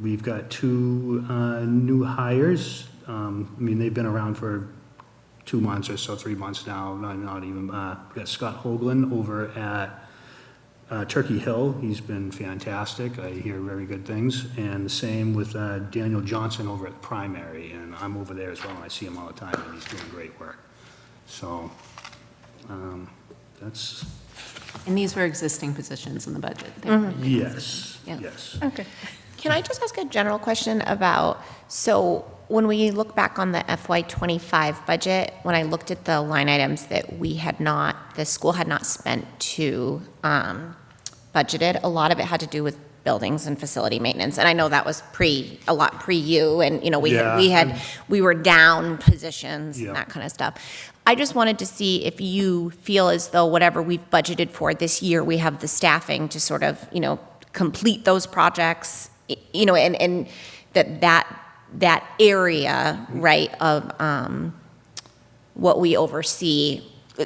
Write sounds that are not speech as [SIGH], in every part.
We've got two uh, new hires. Um, I mean, they've been around for two months or so, three months now, not not even. uh, We've got Scott Hoagland over at uh, Turkey Hill. He's been fantastic. I hear very good things. And the same with uh, Daniel Johnson over at Primary, and I'm over there as well, and I see him all the time, and he's doing great work. So um, that's, And these were existing positions in the budget. They weren't Mm-hmm. new yes, positions. Yeah. yes. Okay. Can I just ask a general question about, so when we look back on the FY twenty-five budget, when I looked at the line items that we had not, the school had not spent to, um, budgeted, a lot of it had to do with buildings and facility maintenance, and I know that was pre, a lot pre you, and, you know, we, had- we Yeah. had, we were down positions Yeah. and that kind of stuff. I just wanted to see if you feel as though whatever we've budgeted for this year, we have the staffing to sort of, you know, complete those projects, y- you know, and, and that that, that area, right, of um, what we oversee,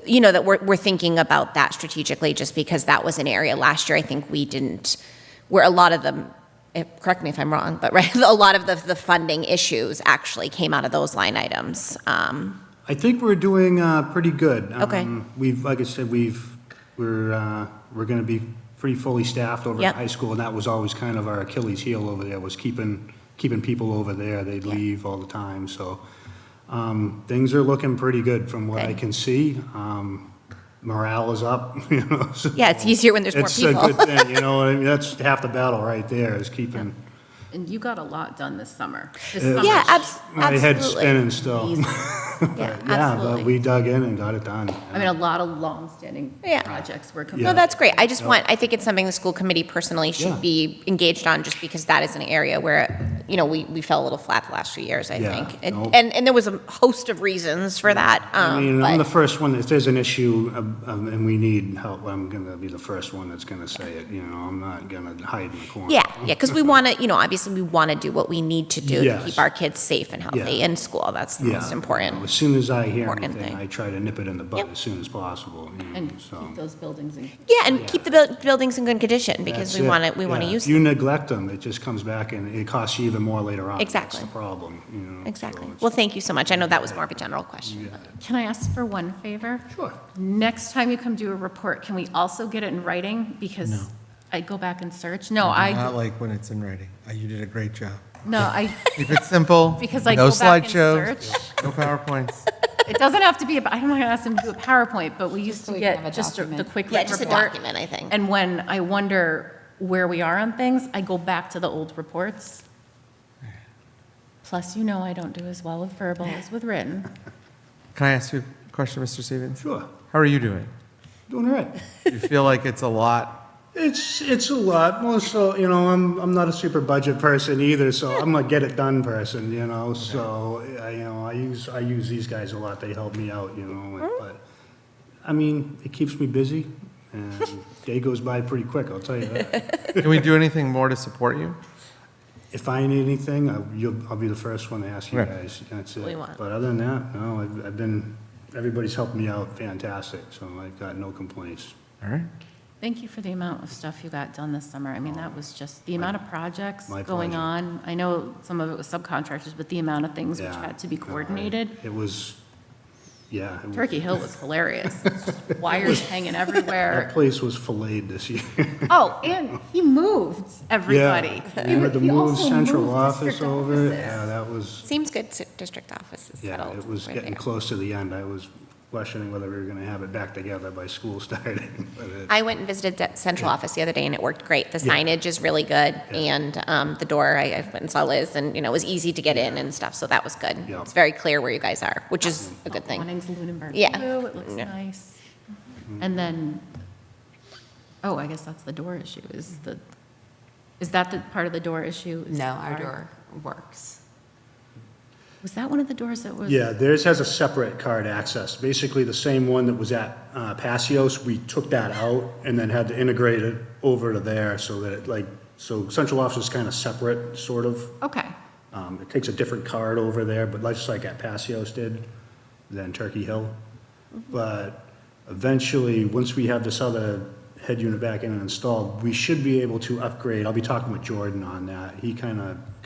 you know, that we're, we're thinking about that strategically, just because that was an area last year, I think we didn't, where a lot of them, eh, correct me if I'm wrong, but [LAUGHS] right, a lot of the, the funding issues actually came out of those line items. Um, I think we're doing uh, pretty good. Okay. Um, We've, like I said, we've, we're, uh, we're going to be pretty fully staffed over at Yep. high school, and that was always kind of our Achilles heel over there, was keeping, keeping people over there. They'd leave all the time, so um, things are looking pretty good from what I Good. can see. Um, Morale is up, [LAUGHS] you know, so. Yeah, it's easier when there's more Oh, It's a people. good [LAUGHS] thing, you know, I mean, that's half the battle right there, is keeping And you got a lot done this summer. This Uh, summer. Yeah, abs- my head absolutely. spinning still. Amazing. Yeah, But [LAUGHS] Yeah, but absolutely. we dug in and got it done. I mean, a lot of long-standing Yeah. projects were Yeah. No, completed. that's great. I just want, I think it's something the school committee personally Yeah. should be engaged on, just because that is an area where, you know, we, we fell a little flat the last few years, I Yeah, think. no. And, and, and there was a host of reasons for that, I um, mean, I'm the but, first one, if there's an issue um, um, and we need help, I'm going to be the first one that's going to say it, you know, I'm not going to hide in the corner. yeah, yeah, because we want to, you know, obviously, we want to do what we need to do to Yes. keep our kids safe and healthy Yeah. in school. That's the Yeah. most As important. soon as I hear Important anything, thing. I try to nip it in the bud Yep. as soon as possible, you know, And so. keep those buildings in. Yeah, and keep the buil- buildings in good condition, because That's we it, want to, we want to yeah. use If you neglect them, it just comes back and it costs you even more later on. Exactly. That's the problem, you know. so Exactly. it's- Well, thank you so much. I know that was more of a general question. Can I ask for one favor? Sure. Next time you come do a report, can we also get it in writing? Because I go back and search. No, Not Oh, Uh-huh. I, like when it's in writing. Uh, You did a great job. no, I, Keep it simple. [LAUGHS] [LAUGHS] because I no go back and slideshows, search. No PowerPoints. It doesn't have to be, about- I'm not going to ask them to do a PowerPoint, but we used to we can have get a just a- the document. quick Yeah, rip just a report. document, I think. And when I wonder where we are on things, I go back to the old reports. Plus, you know I don't do as well with verbal as with written. Can I ask you a question, Mr. Stevens? Sure, How are you doing? doing all right. Do you feel like it's a lot? It's, it's a lot, more so, you know, I'm, I'm not a super budget person either, so I'm a get it done person, you know, so, I, you know, I use, I use these guys a lot, they help me out, you know, Mm-hmm. and- but, I mean, it keeps me busy, [LAUGHS] and day goes by pretty quick, I'll tell you that. Can we do anything more to support you? If I need anything, I, you'll, I'll be the first one to ask you Right. guys, that's it. We want. But other than that, no, I've, I've been, everybody's helped me out fantastic, so I've got no complaints. All right. Thank you for the amount of stuff you got done this summer. I mean, that was just, the amount of projects My going pleasure. on. I know some of it was subcontractors, but the amount of things which Yeah, had to be no, I- coordinated. It was, yeah. it was- Turkey Hill was hilarious. [LAUGHS] It's just Wires hanging everywhere. That place was filleted this [LAUGHS] year. Oh, and he moved everybody. Yeah, He we had to he move also central moved office district over. offices. Yeah, that was, Seems good, s- district offices yeah, settled. it was We're getting there. close to the end. I was questioning whether we were going to have it back together by school starting. [LAUGHS] but it- I went and visited the central office the other day, and it worked great. The Yeah. signage is really good, and um, the door, I I went and saw Liz, and, you know, it was easy to get in and stuff, so that was good. Yeah. It's very clear where you guys are, which is a good thing. awning's Lunenburg Yeah. blue, it looks Yeah. nice. And then, oh, I guess that's the door issue, is the, is that the part of the door issue? Is No, the our car- door works. Was that one of the doors that was? Yeah, theirs has a separate card access. Basically, the same one that was at uh, Passios, we took that out and then had to integrate it over to there so that it like, so central office is kind of separate, sort of. Okay, Um, It takes a different card over there, but just like at Passios did, than Turkey Hill. But eventually, once we have this other head unit back in and installed, we should be able to upgrade, I'll be talking with Jordan on that. He kind of